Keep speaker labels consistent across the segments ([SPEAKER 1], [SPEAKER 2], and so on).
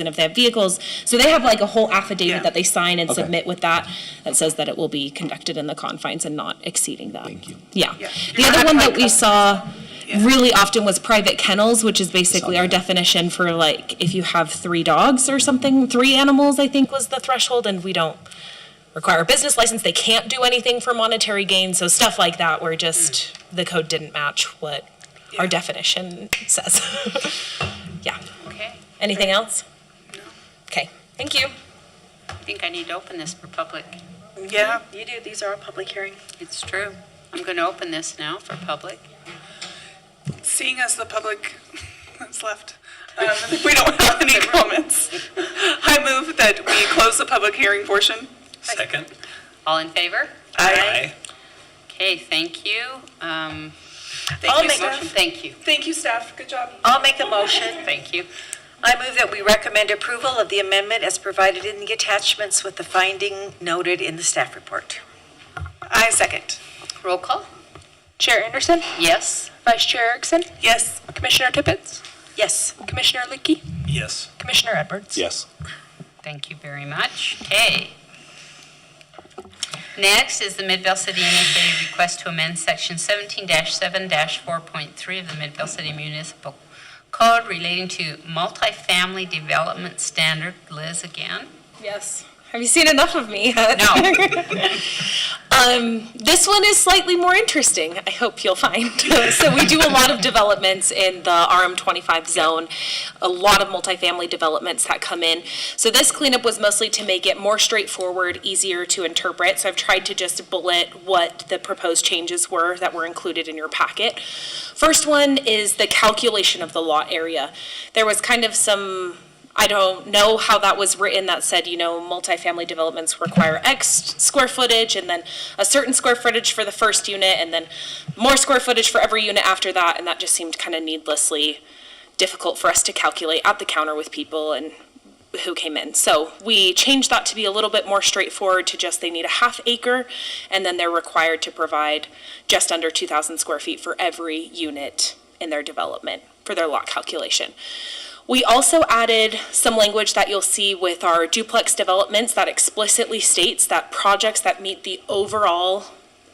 [SPEAKER 1] and if they have vehicles. So they have like a whole
[SPEAKER 2] Yeah.
[SPEAKER 1] affidavit that they sign and submit with that, that says that it will be conducted in the confines and not exceeding that. Thank you. Yeah.
[SPEAKER 2] Yeah.
[SPEAKER 1] The
[SPEAKER 2] You're
[SPEAKER 1] other
[SPEAKER 2] not
[SPEAKER 1] one that
[SPEAKER 2] like
[SPEAKER 1] we
[SPEAKER 2] a-
[SPEAKER 1] saw
[SPEAKER 2] Yeah.
[SPEAKER 1] really often was private kennels, which is basically our
[SPEAKER 3] that.
[SPEAKER 1] definition for like, if you have three dogs or something, three animals, I think was the threshold, and we don't require a business license, they can't do anything for monetary gain, so stuff like that, where just the code didn't match what our
[SPEAKER 2] Yeah.
[SPEAKER 1] definition says. Yeah.
[SPEAKER 4] Okay,
[SPEAKER 1] Anything else? Okay, thank you.
[SPEAKER 4] I think I need to open this for public.
[SPEAKER 2] Yeah, you do. These are all public hearing.
[SPEAKER 4] It's true. I'm going to open this now for public.
[SPEAKER 2] Seeing as the public is left, um, we don't have any comments. I move that we close the public hearing portion.
[SPEAKER 5] Second.
[SPEAKER 4] All in favor?
[SPEAKER 2] Aye.
[SPEAKER 4] Okay, thank you. Um,
[SPEAKER 2] Thank you,
[SPEAKER 6] make
[SPEAKER 4] motion-
[SPEAKER 2] staff.
[SPEAKER 4] Thank you,
[SPEAKER 2] Thank you, staff. Good job.
[SPEAKER 6] I'll make a motion.
[SPEAKER 4] thank you.
[SPEAKER 6] I move that we recommend approval of the amendment as provided in the attachments with the finding noted in the staff report.
[SPEAKER 2] I second.
[SPEAKER 4] Roll call?
[SPEAKER 7] Chair Anderson,
[SPEAKER 4] Yes?
[SPEAKER 7] Vice Chair Erickson,
[SPEAKER 2] Yes.
[SPEAKER 7] Commissioner Tippett,
[SPEAKER 6] Yes.
[SPEAKER 7] Commissioner Licky,
[SPEAKER 5] Yes.
[SPEAKER 7] Commissioner Edwards.
[SPEAKER 3] Yes.
[SPEAKER 4] Thank you very much. Okay. Next is the Midvale City MSA request to amend Section 17-7-4.3 of the Midvale City Municipal Code relating to multifamily development standard. Liz again?
[SPEAKER 1] Yes. Have you seen enough of me? um, this one is slightly more interesting, I hope you'll find. so, we do a lot of developments in the RM25 zone, a lot of multifamily developments that come in. So, this cleanup was mostly to make it more straightforward, easier to interpret. So, I've tried to just bullet what the proposed changes were that were included in your packet. First one is the calculation of the lot area. There was kind of some I don't know how that was written that said, you know, multifamily developments require X square footage and then a certain square footage for the first unit and then more square footage for every unit after that. And that just seemed kind of needlessly difficult for us to calculate at the counter with people and who came in. So we changed that to be a little bit more straightforward to just they need a half acre and then they're required to provide just under 2,000 square feet for every unit in their development for their lot calculation. We also added some language that you'll see with our duplex developments that explicitly states that projects that meet the overall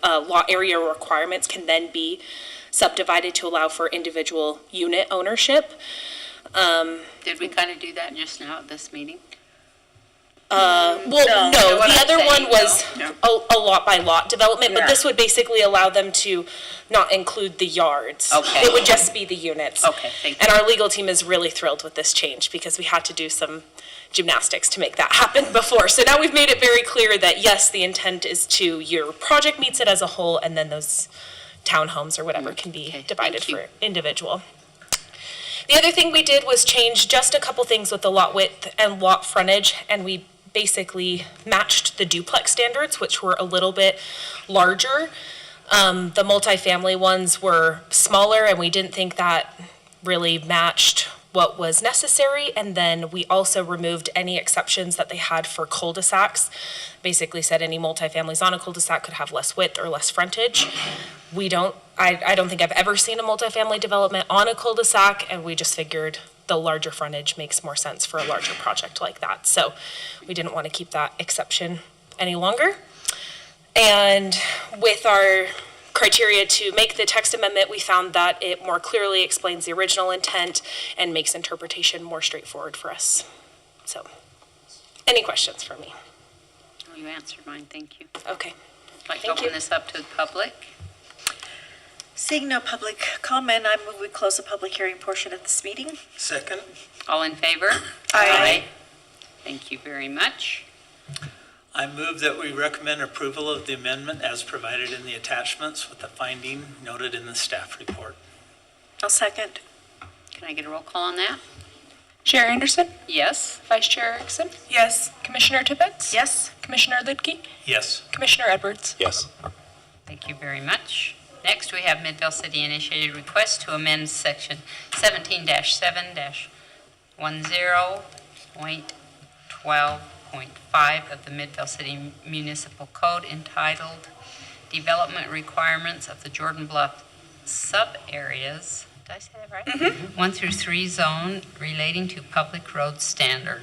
[SPEAKER 1] uh, lot area requirements can then be subdivided to allow for individual unit ownership.
[SPEAKER 4] Did we kind of do that just now at this meeting?
[SPEAKER 1] Well, no,
[SPEAKER 4] You know what
[SPEAKER 1] the
[SPEAKER 4] I'm
[SPEAKER 1] other
[SPEAKER 4] saying,
[SPEAKER 1] one was
[SPEAKER 2] no?
[SPEAKER 1] a, a lot by lot development, but
[SPEAKER 4] Yeah.
[SPEAKER 1] this would basically allow them to not include the yards.
[SPEAKER 4] Okay.
[SPEAKER 1] It would just be the units.
[SPEAKER 4] Okay, thank
[SPEAKER 1] And our legal team is really thrilled with this change because we had to do some gymnastics to make that happen before. So now we've made it very clear that yes, the intent is to, your project meets it as a whole and then those townhomes or whatever can
[SPEAKER 4] Mm, okay,
[SPEAKER 1] be divided
[SPEAKER 4] thank you.
[SPEAKER 1] for individual. The other thing we did was change just a couple things with the lot width and lot frontage, and we basically matched the duplex standards, which were a little bit larger. Um, the multifamily ones were smaller, and we didn't think that really matched what was necessary. And then we also removed any exceptions that they had for cul-de-sacs. Basically said any multifamilies on a cul-de-sac could have less width or less frontage. We don't, I, I don't think I've ever seen a multifamily development on a cul-de-sac, and we just figured the larger frontage makes more sense for a larger project like that. So we didn't want to keep that exception any longer. And with our criteria to make the text amendment, we found that it more clearly explains the original intent and makes interpretation more straightforward for us. So, any questions for me?
[SPEAKER 4] You answered mine, thank you.
[SPEAKER 1] Okay.
[SPEAKER 4] I'd Like to
[SPEAKER 1] Thank
[SPEAKER 4] open
[SPEAKER 1] you.
[SPEAKER 4] this up to the public?
[SPEAKER 6] Seeing no public comment, I move we close the public hearing portion of this meeting.
[SPEAKER 5] Second.
[SPEAKER 4] All in favor?
[SPEAKER 2] Aye.
[SPEAKER 4] Thank you very much.
[SPEAKER 5] I move that we recommend approval of the amendment as provided in the attachments with the finding noted in the staff report.
[SPEAKER 6] I'll second.
[SPEAKER 4] Can I get a roll call on that?
[SPEAKER 7] Chair Anderson,
[SPEAKER 4] Yes?
[SPEAKER 7] Vice Chair Erickson,
[SPEAKER 2] Yes.
[SPEAKER 7] Commissioner Tippett,
[SPEAKER 6] Yes.
[SPEAKER 7] Commissioner Licky,
[SPEAKER 5] Yes.
[SPEAKER 7] Commissioner Edwards.
[SPEAKER 3] Yes.
[SPEAKER 4] Thank you very much. Next, we have Midvale City initiated request to amend section seventeen seven one zero point twelve point five of the Midvale City Municipal Code entitled Development Requirements of the Jordan Bluff Sub-Areas did I say that right? One through three zone relating to public road standards.